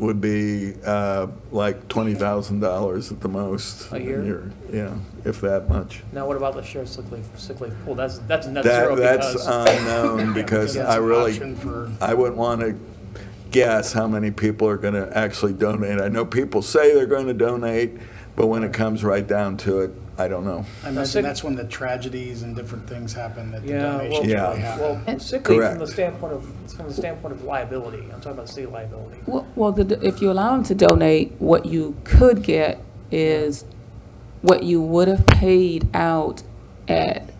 would be uh, like $20,000 at the most. A year? Yeah, if that much. Now, what about the shared sick leave, sick leave pool? That's, that's net zero That, that's uh, because. unknown because Yeah, I really, Option for, I wouldn't want to guess how many people are going to actually donate. I know people say they're going to donate, but when it comes right down to it, I don't know. I sick- imagine that's when the tragedies and different things happen that the Yeah, well- donations Yeah. really happen. Well, sick leave from the Correct. standpoint of, from the standpoint of liability. I'm talking about state liability. Well, well, the- if you allow them to donate, what you could get is what you would have paid out at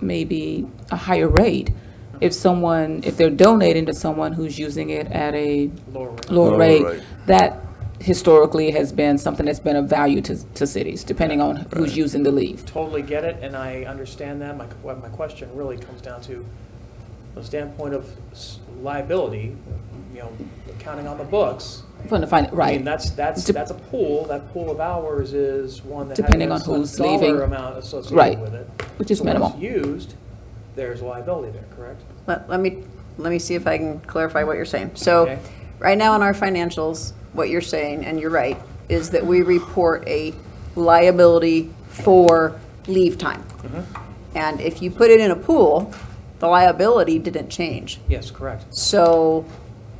maybe a higher rate. If someone, if they're donating to someone who's using it at a Lower rate. lower Lower rate, rate. that historically has been something that's been of value to, to cities, depending on who's using the leave. Totally get it, and I understand that. My, what my question really comes down to the standpoint of s- liability, you know, accounting on the books. From the fin- I mean, right, that's, that's, Dep- that's a pool. That pool of hours is one that Depending on has a who's dollar leaving. amount Right. associated with it. which is So when it's minimal. Used, there's liability there, correct? Let, let me, let me see if I can clarify what you're saying. Okay. So, right now in our financials, what you're saying, and you're right, is that we report a liability for leave time. Mm-hmm. And if you put it in a pool, the liability didn't change. Yes, correct. So,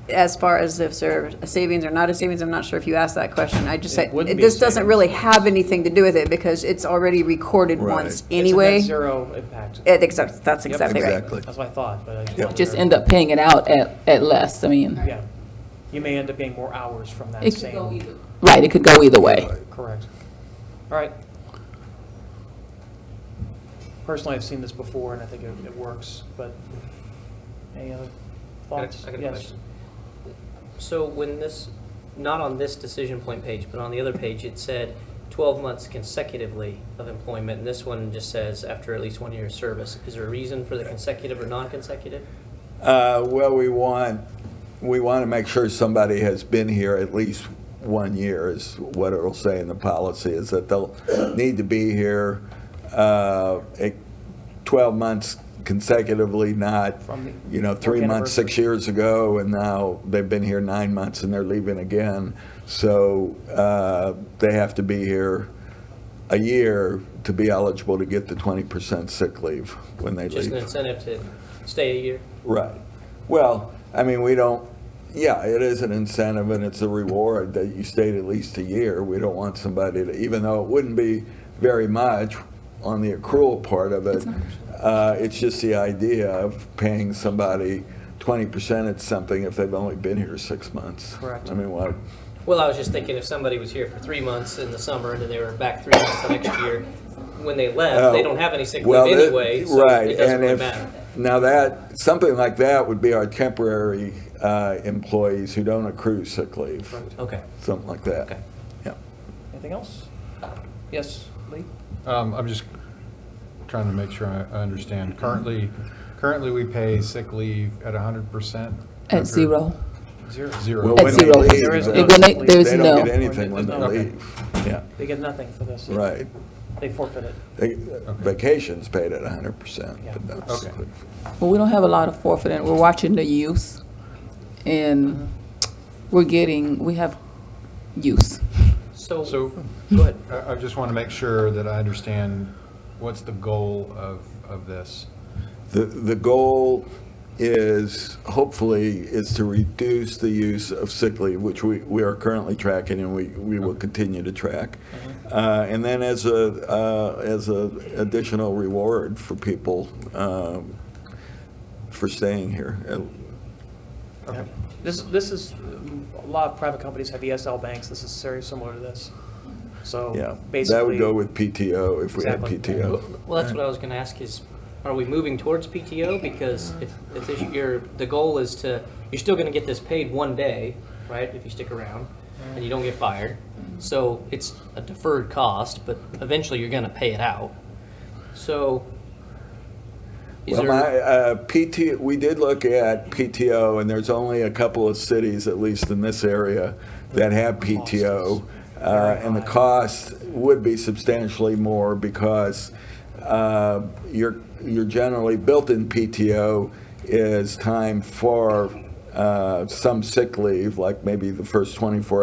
as far as if there's a savings or not a savings, I'm not sure if you asked that question. I It just said, wouldn't be a this doesn't savings. really have anything to do with it because it's already recorded Right. once It's anyway. It's a net zero impact. It- exactly- that's Yep. exactly right. Exactly. That's what I thought, but I just Yep. wanted to- Just end up paying it out at, at less, I mean. Yeah. You may end up getting more hours from that it could go same, either. Right, it could go either way. correct. All right. Personally, I've seen this before, and I think it, it works, but any other I thoughts? got a- I got a Yes. question. So when this, not on this decision point page, but on the other page, it said 12 months consecutively of employment, and this one just says after at least one year of service. Is there a reason for the consecutive or non-consecutive? Uh, Well, we want, we want to make sure somebody has been here at least one year is what it'll say in the policy, is that they'll need to be here uh, eh, 12 months consecutively, not, From the you know, three work months, six years ago, and now they've been here nine months and they're leaving again. So uh, they have to be here a year to be eligible to get the 20% sick leave when they leave. Just an incentive to stay a year? Right. Well, I mean, we don't, yeah, it is an incentive and it's a reward that you stayed at least a year. We don't want somebody to, even though it wouldn't be very much on the accrual part of it, uh, it's just the idea of paying somebody 20% at something if they've only been here six months. Correct. I mean, what, Well, I was just thinking if somebody was here for three months in the summer and then they were back three months the next year, when they left, Oh, they don't have any sick Well, leave that- anyway, so right, it doesn't and really if- matter. Now that, something like that would be our temporary uh, employees who don't accrue sick leave, Okay. something like that. Okay. Yeah. Anything else? Yes, Lee? Um, I'm just trying to make sure I I understand. Currently, currently we pay sick leave at hundred percent? At zero. Zero. Zero. Well, At when they zero. leave, There is they- no- When they- There's They don't no, get anything when they Okay. leave. Yeah, They get nothing for this. right. They forfeit it. They- uh, Vacation's paid at hundred percent, but that's. Okay. well, we don't have a lot of forfeiting. We're watching the use and we're getting, we have use. So, So go ahead. I, I just want to make sure that I understand what's the goal of, of this? The, the goal is, hopefully, is to reduce the use of sick leave, which we, we are currently tracking and we, we will continue to track. Uh, and then as a, uh, as a additional reward for people, um, for staying here. Yeah. This, this is, um, a lot of private companies have ESL banks, this is very similar to this. So Yeah, basically. that would go with PTO if we had Exactly. PTO. Well, that's what I was gonna ask is, are we moving towards PTO? Because if, if this, your, the goal is to, you're still gonna get this paid one day, right, if you stick around, and you don't get fired. So it's a deferred cost, but eventually you're gonna pay it out. So. is Well, there- my, uh, PT, we did look at PTO, and there's only a couple of cities, at least in this area, that have PTO. Uh, and the cost would be substantially more because, uh, you're, you're generally, built-in PTO is time for uh, some sick leave, like maybe the first 24